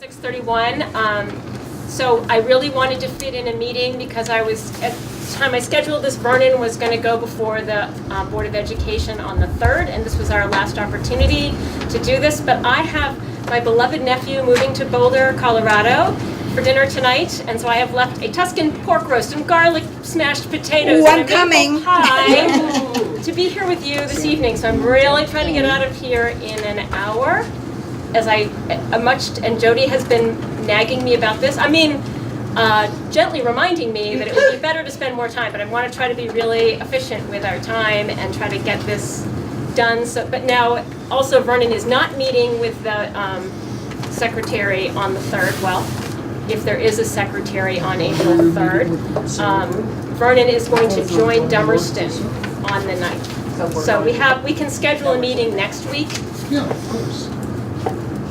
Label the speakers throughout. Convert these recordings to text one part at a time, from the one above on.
Speaker 1: 6:31. Um, So I really wanted to fit in a meeting because I was, at the time I scheduled this, Vernon was going to go before the uh, Board of Education on the 3rd, and this was our last opportunity to do this. But I have my beloved nephew moving to Boulder, Colorado for dinner tonight, and so I have left a Tuscan pork roast and garlic smashed potatoes
Speaker 2: Ooh, I'm
Speaker 1: and a maple
Speaker 2: coming.
Speaker 1: pie to be here with you this evening. So I'm really trying to get out of here in an hour as I a much and Jody has been nagging me about this. I mean, uh, gently reminding me that it would be better to spend more time, but I want to try to be really efficient with our time and try to get this done. So, but now also Vernon is not meeting with the um, secretary on the third. Well, if there is a secretary on April third, um, Vernon is going to join Dummerston on the ninth. So we have we can schedule a meeting next week.
Speaker 3: Yeah, of course.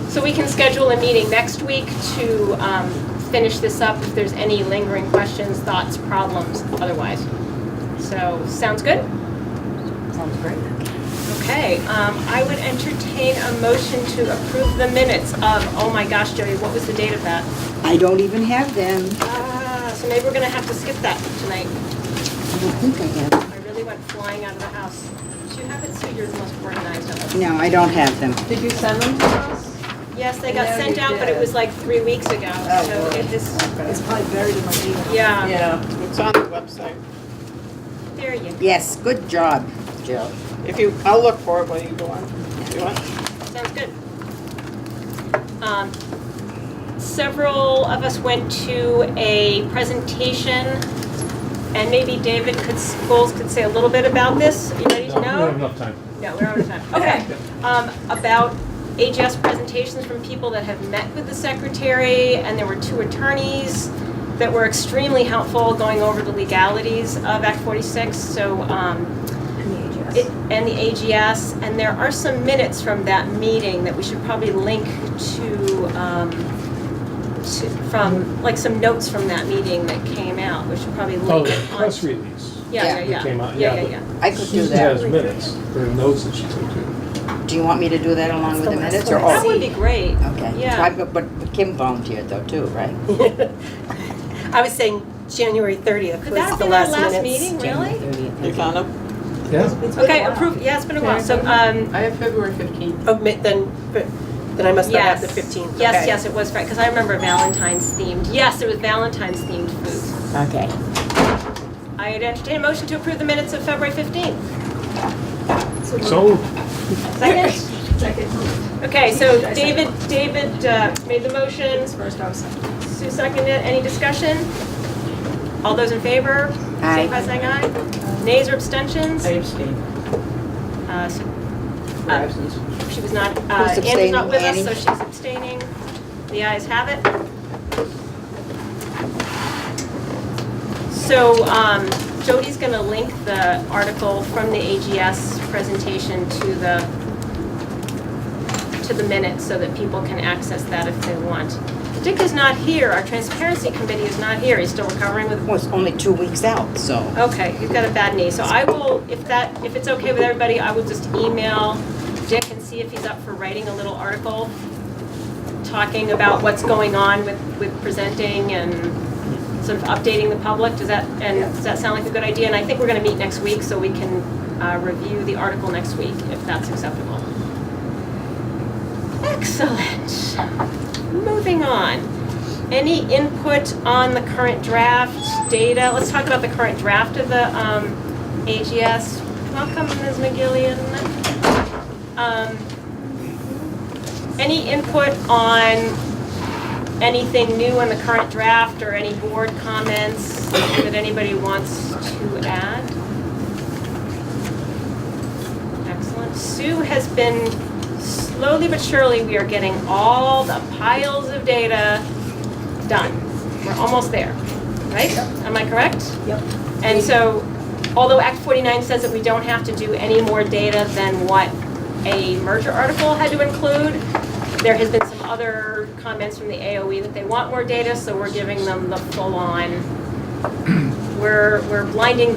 Speaker 1: So we can schedule a meeting next week to um, finish this up if there's any lingering questions, thoughts, problems, otherwise. So, sounds good?
Speaker 4: Sounds great.
Speaker 1: Okay, um, I would entertain a motion to approve the minutes of, oh my gosh, Jody, what was the date of that?
Speaker 2: I don't even have them.
Speaker 1: Ah, So maybe we're gonna have to skip that tonight.
Speaker 2: I don't think I have.
Speaker 1: I really went flying out of the house. Do you have it, Sue? You're the most organized of us.
Speaker 2: No, I don't have them.
Speaker 4: Did you send them to us?
Speaker 1: Yes, they got
Speaker 4: No,
Speaker 1: sent
Speaker 4: you
Speaker 1: out, but it
Speaker 4: did.
Speaker 1: was like three weeks ago.
Speaker 4: Oh,
Speaker 1: So
Speaker 4: boy.
Speaker 1: it is,
Speaker 4: It's probably buried in my email.
Speaker 1: yeah,
Speaker 4: Yeah.
Speaker 5: It's on the website.
Speaker 1: there you go.
Speaker 2: Yes, good job, Jill.
Speaker 5: If you, I'll look for it while you go on. You want?
Speaker 1: Sounds good. Um, Several of us went to a presentation, and maybe David could, Bowles could say a little bit about this. You ready to know?
Speaker 6: enough time.
Speaker 1: No, we're out of time. Okay. Um, About AGS presentations from people that have met with the secretary, and there were two attorneys that were extremely helpful going over the legalities of Act 46, so, um, it- and the AGS, and there are some minutes from that meeting that we should probably link to, um, to- from, like, some notes from that meeting that came out, we should probably
Speaker 6: Oh,
Speaker 1: link
Speaker 6: the
Speaker 1: on.
Speaker 6: press release.
Speaker 1: Yeah, yeah,
Speaker 6: that
Speaker 1: yeah.
Speaker 6: came out,
Speaker 1: Yeah,
Speaker 6: yeah,
Speaker 1: yeah,
Speaker 6: but-
Speaker 1: yeah.
Speaker 2: I could do
Speaker 6: Susan has
Speaker 2: that.
Speaker 6: minutes, there are notes that she took to.
Speaker 2: Do you want me to do that along with the minutes or
Speaker 1: That
Speaker 2: all?
Speaker 1: would be great.
Speaker 2: Okay.
Speaker 1: Yeah.
Speaker 2: So I- But but Kim volunteered though too, right?
Speaker 4: I was saying January 30th
Speaker 1: Could that be our last meeting, really?
Speaker 5: You found them?
Speaker 6: Yeah,
Speaker 1: Okay, approve, yeah, it's been a while, so, um,
Speaker 4: I have February 15th. Oh, mi- then, then I must not
Speaker 1: yes.
Speaker 4: have the 15th.
Speaker 1: Yes,
Speaker 4: Okay.
Speaker 1: yes, it was, because I remember Valentine's themed, yes, it was Valentine's themed food.
Speaker 2: Okay.
Speaker 1: I would entertain a motion to approve the minutes of February fifteenth.
Speaker 6: so,
Speaker 1: Second? Okay, so David, David uh, made the motion,
Speaker 4: First, I was second.
Speaker 1: Sue seconded, it. any discussion? All those in favor? Say by
Speaker 2: Aye.
Speaker 1: saying aye. Nays or abstentions?
Speaker 7: I abstain.
Speaker 1: Uh, so
Speaker 7: for absence.
Speaker 1: She was not, uh,
Speaker 2: Who's
Speaker 1: Anne's not
Speaker 2: abstaining,
Speaker 1: with us,
Speaker 2: Annie?
Speaker 1: so she's abstaining. The ayes have it. So um, Jody's going to link the article from the AGS presentation to the, to the minutes so that people can access that if they want. Dick is not here, our transparency committee is not here, he's still recovering with
Speaker 2: Well, it's only two weeks out, so.
Speaker 1: Okay, he's got a bad knee, so I will, if that, if it's okay with everybody, I will just email Dick and see if he's up for writing a little article, talking about what's going on with, with presenting and sort of updating the public, does that, and does that sound like a good idea? And I think we're gonna meet next week, so we can, uh, review the article next week, if that's acceptable. Excellent. Moving on. Any input on the current draft data? Let's talk about the current draft of the um, AGS. Welcome, Ms. McGillian. Um, Any input on anything new in the current draft or any board comments that anybody wants to add? Excellent. Sue has been, slowly but surely, we are getting all the piles of data done. We're almost there, right? Am I correct?
Speaker 4: Yep.
Speaker 1: And so, although Act 49 says that we don't have to do any more data than what a merger article had to include, there has been some other comments from the AOE that they want more data, so we're giving them the full-on, we're, we're blinding them.